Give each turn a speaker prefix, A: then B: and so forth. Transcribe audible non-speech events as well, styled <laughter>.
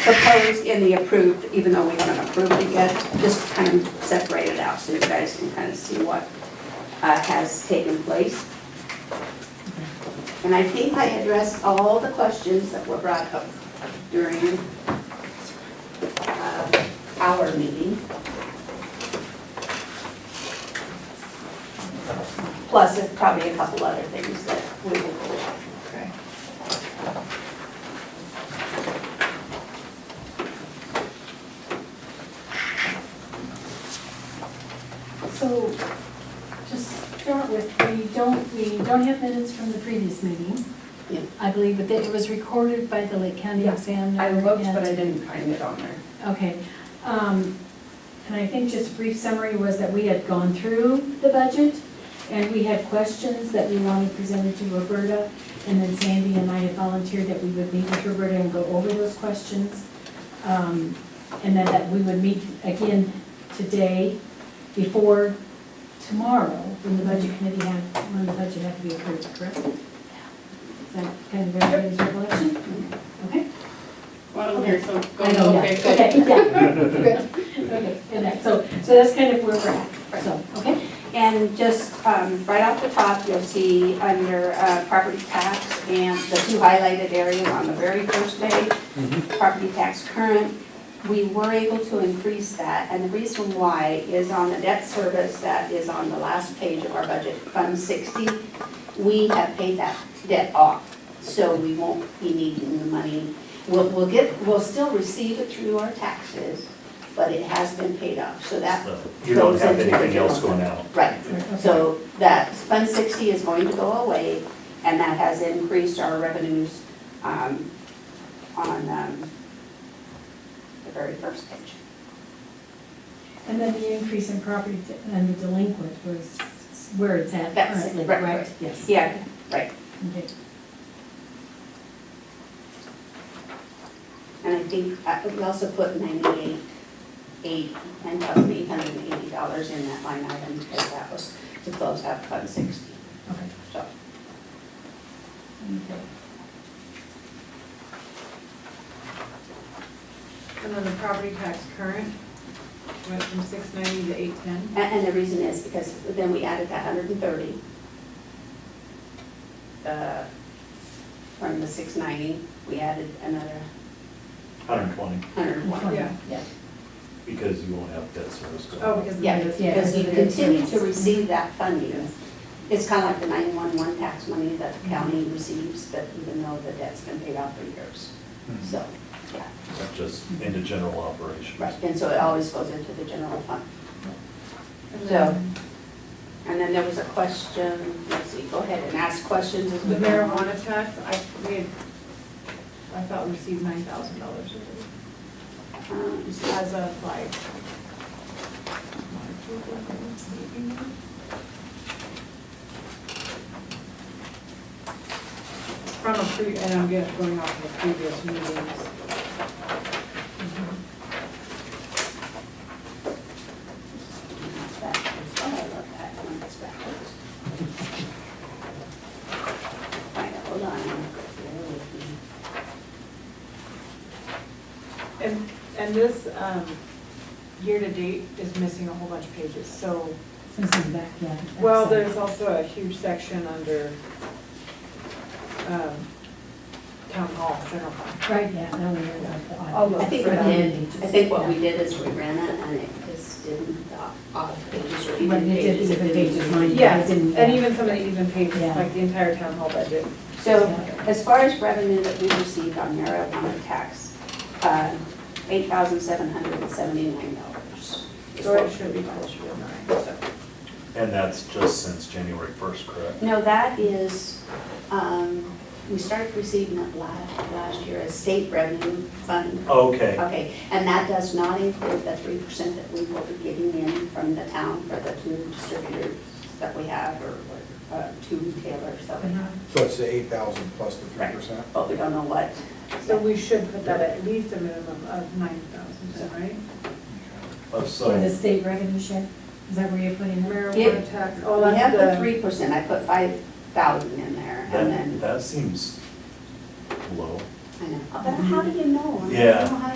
A: proposed and the approved, even though we haven't approved it yet, just kind of separate it out so you guys can kind of see what uh, has taken place. And I think I addressed all the questions that were brought up during uh, our meeting. Plus, there's probably a couple other things that we will go over.
B: Okay.
C: So, just start with, we don't, we don't have minutes from the previous meeting.
A: Yeah.
C: I believe, but that it was recorded by the Lake County
B: Yeah,
C: Examiner.
B: I looked, but I
C: and-
B: didn't find it on there.
C: Okay. um, And I think just a brief summary was that we had gone through the budget, and we had questions that we wanted presented to Roberta, and then Sandy and I had volunteered that we would meet with Roberta and go over those questions. um, And then that we would meet again today before tomorrow, when the budget committee had, when the budget had to be approved, correct? Is that kind of everybody's recollection? Okay?
D: Well, here, so go,
C: I know, yeah.
D: okay, good.
C: Okay,
A: <laughs>
C: yeah. Good. Okay, and that, so, so that's kind of where we're at, so, okay?
A: And just um, right off the top, you'll see under uh, property tax and the two highlighted areas on the very first page, property tax current, we were able to increase that. And the reason why is on the debt service that is on the last page of our budget, Fund 60, we have paid that debt off. So we won't be needing the money. We'll, we'll get, we'll still receive it through our taxes, but it has been paid off. So that
E: So You don't have
A: Goes into the
E: anything else
A: general
E: going out.
A: Right,
C: Okay.
A: so that Fund 60 is going to go away, and that has increased our revenues um, on um, the very first page.
C: And then the increase in property t- and the delinquent was where it's at
A: That's it,
C: currently,
A: right,
C: right?
A: right.
C: Yes.
A: Yeah, right.
C: Okay.
A: And I think uh, we also put 98, eight- $9,880 in that line item because that was to close out Fund 60.
C: Okay.
A: So
C: Okay.
B: And then the property tax current went from six ninety to eight ten.
A: And and the reason is because then we added that hundred and thirty uh, from the six ninety, we added another
E: 120,
A: hundred and one.
B: Yeah.
C: Yeah.
E: because you won't have debt service going
B: Oh,
E: out.
B: because. of
A: Yeah,
B: this.
C: Yeah.
A: because you continue to receive that funding. It's kind of like the nine-one-one tax money that the county
B: Mm-hmm.
A: receives, but even though the debt's been paid off for years. So, yeah,
E: Not Just into general operations.
A: right, and so it always goes into the general fund.
B: And
A: So,
B: then
A: and then there was a question, let's see, go ahead and ask questions. as we
B: The
A: go along.
B: marijuana tax, I, we had, I thought we received nine thousand dollars
A: Um,
B: as of like. From a pre, and I'm get- going off of previous meetings.
A: Backwards. Oh, I love that one, it's backwards. Right, hold on. Bear with me.
B: And, and this, um, year-to-date is missing a whole bunch of pages, so,
C: This is back, yeah. back
B: well,
C: side.
B: there's also a huge section under, um, town hall, general fund.
C: Right, yeah, now we have like the audit.
B: All those
A: I think we did, I think what we did is we ran it and it just didn't, the odd pages or
C: But
A: even
C: it did
A: pages.
C: even pages, mine, but
B: Yeah,
C: it didn't.
B: and even some of the even pages,
C: Yeah.
B: like the entire town hall budget.
A: So as far as revenue that we received on marijuana tax, uh, $8,779. is
B: So
A: what
B: it should be closer to nine, so.
E: And that's just since January 1st, correct?
A: No, that is, um, we started receiving it last, last year as state revenue fund.
E: Okay,
A: Okay, and that does not include the three percent that we will be getting in from the town for the two distributors that we have or, or, uh, two retailers that
B: Uh-huh.
A: we have.
F: So it's the eight thousand plus the three percent?
A: But we don't know what.
B: So we should put that at least a minimum of nine thousand, right?
E: Of
C: For the
E: so,
C: state revenue share, is that where you're putting it?
B: Marijuana tax, oh,
A: We have the
B: that's the,
A: three percent, I put five thousand in there and
E: that,
A: then,
E: that seems low.
A: I know, but how do you know? I don't
E: Yeah.
A: know how